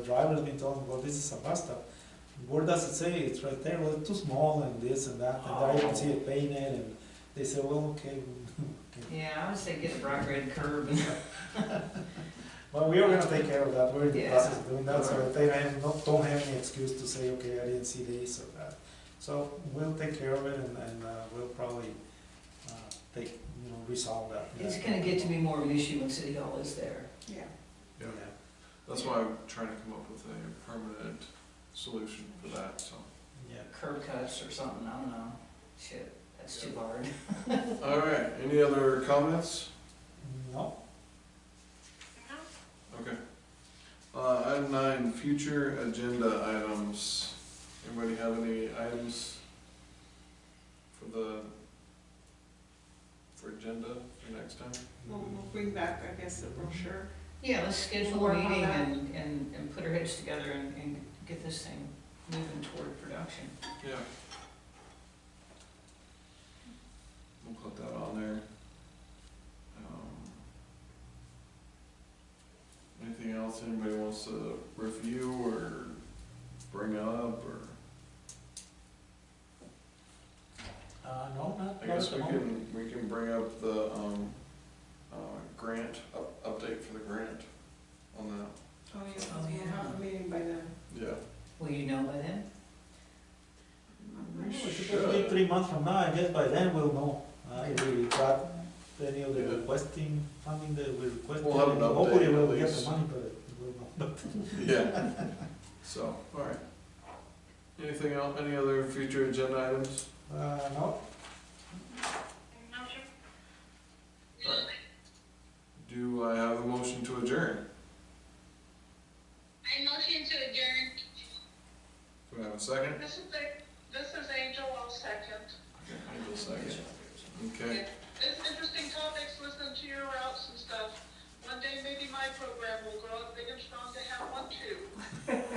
The driver's been talking about this is a bus stop. Where does it say? It's right there. Well, it's too small and this and that. And I Oh. didn't see it painted and they say, well, okay. okay. Yeah, I would say get a bright red curb. But we are gonna take care of that. We're in the Yeah. process of doing that. So they have not, don't have any excuse to say, okay, I didn't see this or that. So we'll take care of it and, and uh, we'll probably, uh, take, you know, resolve that. It's gonna get to be more of an issue when City Hall is there. Yeah, Yeah. Yeah, that's why I'm trying to come up with a permanent solution for that, so. Yeah. Curb cuts or something, I don't know. Shit, that's too hard. All right, any other comments? No, Okay. Uh, item nine, future agenda items. Anybody have any items for the, for agenda for next time? we'll, Mm-hmm. we'll bring back, I guess, the brochure. Yeah, let's schedule Work a on meeting that. and, and, and put our heads together and, and get this thing moving toward production. Yeah. We'll put that on there. Um, Anything else anybody wants to review or bring up, or, uh, no, not, I not at guess the we moment. can, we can bring up the, um, uh, grant, up, update for the grant on that, Oh, yeah, Oh, we'll have a meeting by then. yeah. Will you know by then? We Well, It's should. supposed to be three months from now, I guess by then we'll know, uh, if we got any of the Yeah. requesting funding that we requested. We'll have an update Hopefully we'll at get the least. money, but we'll know. Yeah, so, alright. Anything else, any other future agenda items? Uh, no, Do I have a motion to adjourn? I motion to adjourn. Do I have a second? This is the, this is Angel, I'll second. Angel second. Okay, It's interesting topics, listen to your routes and stuff. One day maybe my program will grow up big and strong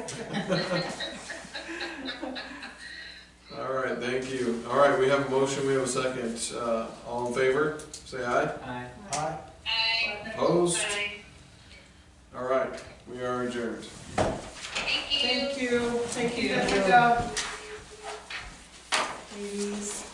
to have one too. alright, thank you. Alright, we have a motion, we have a second. Uh, all in favor, say aye. Aye. I, Aye. Opposed? Alright, we are adjourned. Thank you. Thank you, thank you, Thank you. good job. Ladies.